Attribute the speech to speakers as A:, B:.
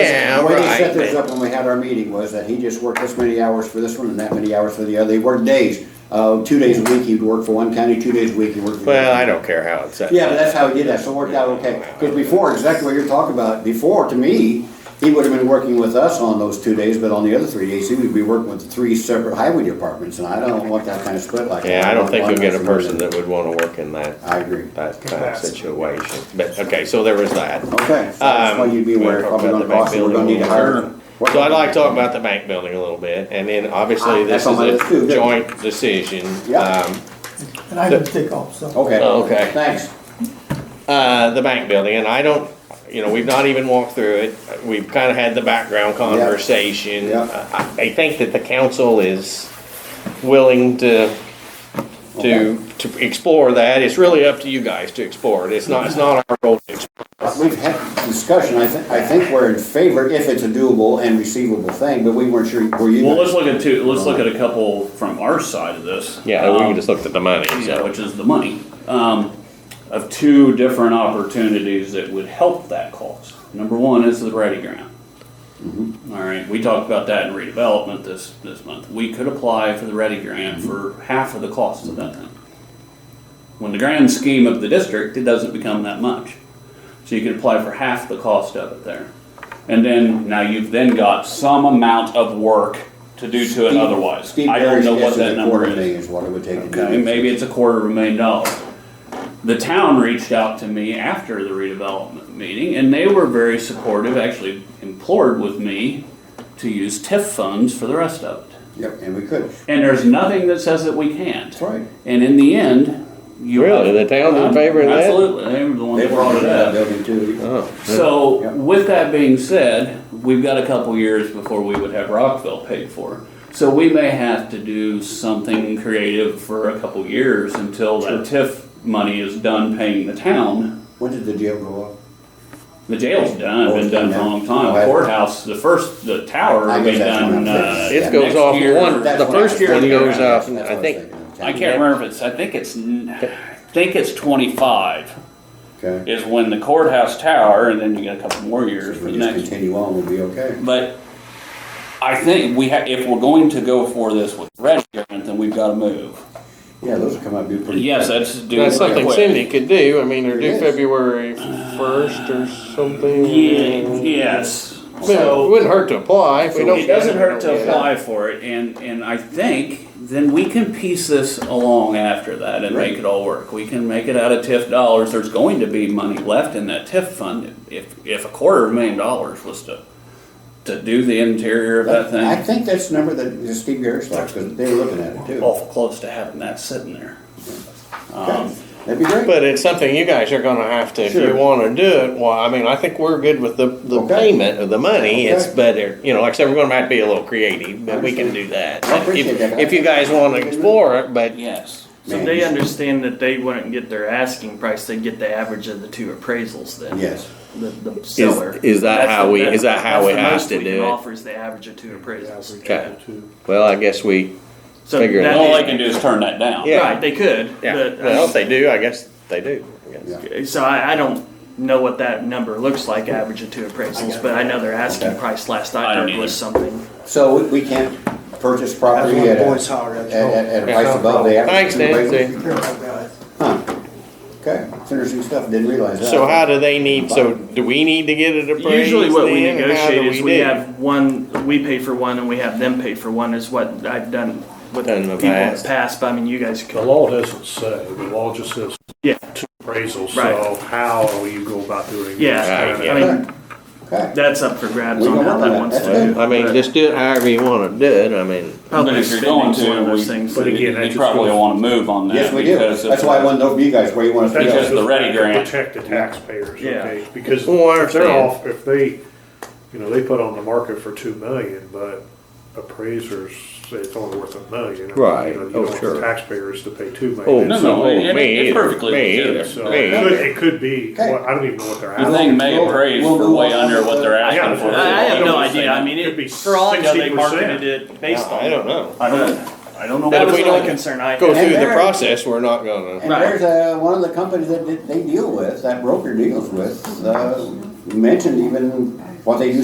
A: we didn't set
B: Right,
A: this
B: but-
A: up when we had our meeting, was that he just worked this many hours for this one and that many hours for the other. He worked days, uh, two days a week he'd work for one county, two days a week he worked for. the
B: Well,
A: other.
B: I don't care how it's set.
A: Yeah, but that's how he did that, so it worked out okay. Because before, exactly what you're talking about, before, to me, he would have been working with us on those two days, but on the other three days, he would be working with three separate highway departments, and I don't want that kind of split like that.
B: Yeah, I don't think
A: One
B: you'll get a
A: person more
B: person
A: than-
B: that would wanna work in that,
A: I agree.
B: that kind of situation. But, okay, so there was that.
A: Okay, so that's why you'd be
B: Um,
A: aware,
B: we're
A: probably
B: gonna
A: gonna
B: talk about
A: cost,
B: the
A: we're gonna need to
B: back
A: hire.
B: So I'd like to talk about the bank building a little bit, and then obviously
A: Ah,
B: this
A: that's
B: is
A: on my list
B: a
A: too, good.
B: joint decision.
A: Yeah.
B: Um,
C: And I didn't take off, so.
A: Okay.
B: Oh, okay.
A: Thanks.
B: uh, the bank building, and I don't, you know, we've not even walked through it. We've kind of had the background conversation.
A: Yeah.
B: I, I think that the council is willing to, to, to explore that. It's really up to you guys to explore it. It's not, it's not our role to explore.
A: We've had discussion, I think, I think we're in favor if it's a doable and receivable thing, but we weren't sure, were you?
D: Well, let's look at two, let's look at a couple from our side of this.
B: Yeah, we
D: Um,
B: just looked at the money,
D: Yeah,
B: so.
D: which is the money, um, of two different opportunities that would help that cause. Number one is the ready grant.
A: Mm-hmm.
D: All right, we talked about that in redevelopment this, this month. We could apply for the ready
A: Mm-hmm.
D: grant for half of the cost of that thing. When the grand scheme of the district, it doesn't become that much. So you could apply for half the cost of it there. And then, now you've then got some amount of work to do to it otherwise.
A: Steve
D: I don't
A: Barry's
D: know what
A: guess
D: that
A: is a
D: number
A: quarter
D: is.
A: million is what it would take to do.
D: Okay,
A: this.
D: maybe it's a quarter of a million dollars. The town reached out to me after the redevelopment meeting, and they were very supportive, actually implored with me to use TIF funds for the rest of it.
A: Yep, and we could.
D: And there's nothing that says that we can't.
A: That's right.
D: And in the end, you.
B: Really? The town's in favor of that?
D: Absolutely, they were the ones
A: They
D: that brought it
A: that
D: up.
A: building too.
B: Oh,
D: So,
A: Yep.
D: with that being said, we've got a couple years before we would have Rockville paid for. So we may have to do something creative for a couple years until that TIF money is done paying the town.
A: When did the jail go up?
D: The jail's done, been done for a long
A: Oh, yeah.
D: time. Courthouse, the first, the tower
A: I
D: will
A: guess
D: be
A: that's
D: done,
A: when I'm
D: uh.
A: fixed. It
B: It goes
D: next
B: off
D: year.
B: one,
A: That's
B: the
A: what I
B: first
A: was
B: one
D: thinking.
B: goes off,
A: That's what
B: I
A: was
B: think,
A: thinking.
D: I can't remember if it's, I think it's, n- I think it's twenty-five
A: Okay,
D: is when the courthouse tower, and then you got a couple more years
A: if
D: for
A: we
D: the
A: just
D: next
A: continue on, we'll be okay.
D: But I think we have, if we're going to go for this with red grant, then we've gotta move.
A: Yeah, those will come out, be pretty.
D: Yes, that's due.
B: that's something
D: quick.
B: Cindy could do. I mean, they're
A: It
B: due
A: is.
B: February first or something.
D: Yeah, yes.
B: I mean, It
D: So,
B: wouldn't hurt to apply if we don't.
D: it doesn't hurt
B: Yeah.
D: to apply for it, and, and I think then we can piece this along after that and make it all work. We can make it out of TIF dollars. There's going to be money left in that TIF fund. If, if a quarter of a million dollars was to, to do the interior of that thing.
A: I think that's the number that Steve Garrett's like, because they were looking at it too.
D: awful close to having that sitting there.
A: Okay, That'd be great.
B: But it's something you guys are gonna have to, if
A: Sure.
B: you wanna do it, well, I mean, I think we're good with the, the
A: Okay.
B: payment of the money, it's
A: Okay.
B: better, you know, like I said, we're gonna have to be a little creative, but we can do that.
A: I appreciate
B: If-
A: that.
B: If you guys wanna explore it, but,
D: Yes.
E: So
A: Man,
E: they
A: he's-
E: understand that they wouldn't get their asking price, they'd get the average of the two appraisals then?
A: Yes,
E: The, the seller.
B: is that
E: That's
B: how
E: the-
B: we- is that how
E: that's
B: we
E: the
B: has
E: most
B: to
E: we
B: do
E: can
B: it?
E: Offer is the average of two appraisals.
B: okay, well, I guess we,
E: So
B: Figure it
E: that
B: out.
D: All
E: is-
D: they can do is turn that down.
B: Yeah.
E: Right, they could,
B: yeah,
E: but.
B: well,
E: I
B: if
E: just-
B: they do, I guess they do. I guess.
A: yeah.
E: So I, I don't know what that number looks like, average of two appraisals, but I know their asking
A: Okay.
E: price last
D: I
E: I
D: don't
E: heard was something.
A: So we- we can't purchase
C: That's
A: property
C: one
A: at a,
C: boy's holler
A: at,
C: at
A: at at a
B: Yeah.
A: price above the average.
B: Thanks, Nancy.
C: Care about that.
A: Okay, it's interesting stuff, didn't realize that.
B: So how do they need, so do we need to get it appraised?
E: Usually what we
B: then? How do
E: negotiate is we
B: do?
E: have one, we pay for one and we have them pay for one is what I've done with
B: Done in
E: people
B: the
E: in the
B: past.
E: past, but I mean, you guys could.
F: The law doesn't say, the law just says
E: Yeah.
F: two appraisals, so
E: Right.
F: how will you go about doing it?
E: Yeah,
B: Right,
E: I mean,
A: Okay,
E: that's up for grabs
A: We
E: on
A: don't
E: how
A: want that.
E: that wants to
A: That's
E: do.
A: good.
B: I mean, just do it however you wanna do it, I mean.
D: But
E: Public
D: if you're
E: spending
D: going
E: is one of
D: to,
E: those
D: we,
E: things.
F: But again, that
D: we
F: just
D: probably
F: goes-
D: want to move on that.
A: yes, we do,
D: because if-
A: that's why I wanted to know from you guys where you want us to
F: That
D: Because
A: go.
F: just
D: the
F: goes
D: ready
F: back to
D: grant-
F: Protect the taxpayers,
E: Yeah. Oh,
F: okay? Because
B: Well, I
F: if they're
B: understand.
F: off, if they, you know, they put on the market for two million, but appraisers say it's only worth a million. I mean,
B: Right.
F: You know, you
B: Oh,
F: don't want
B: sure.
F: taxpayers to pay two
B: Oh,
F: million.
D: No, no,
B: oh,
D: it- it-
B: me
D: it's
B: either,
D: perfectly
B: me
D: legitimate.
B: either,
F: So
B: me
F: it could, it could be,
A: Okay.
F: well, I don't even know what they're
D: I
F: asking.
D: think May
A: We'll-
D: appraise
A: we'll
D: for
A: go
D: way
A: on.
D: under what they're asking for.
F: Yeah.
E: I have no
D: They don't
E: idea, I mean,
F: Could be
E: it, for all I know, they
F: 60%.
E: marketed it based
B: I
E: on,
B: don't know.
D: I don't, I don't know
B: But
E: that
B: if
E: was
B: we
E: the only
B: don't
E: concern I
B: Go
E: had.
B: through the
A: there-
B: process, we're not gonna.
A: And there's uh one of the companies that they- they deal with, that broker deals with, uh, mentioned even what they do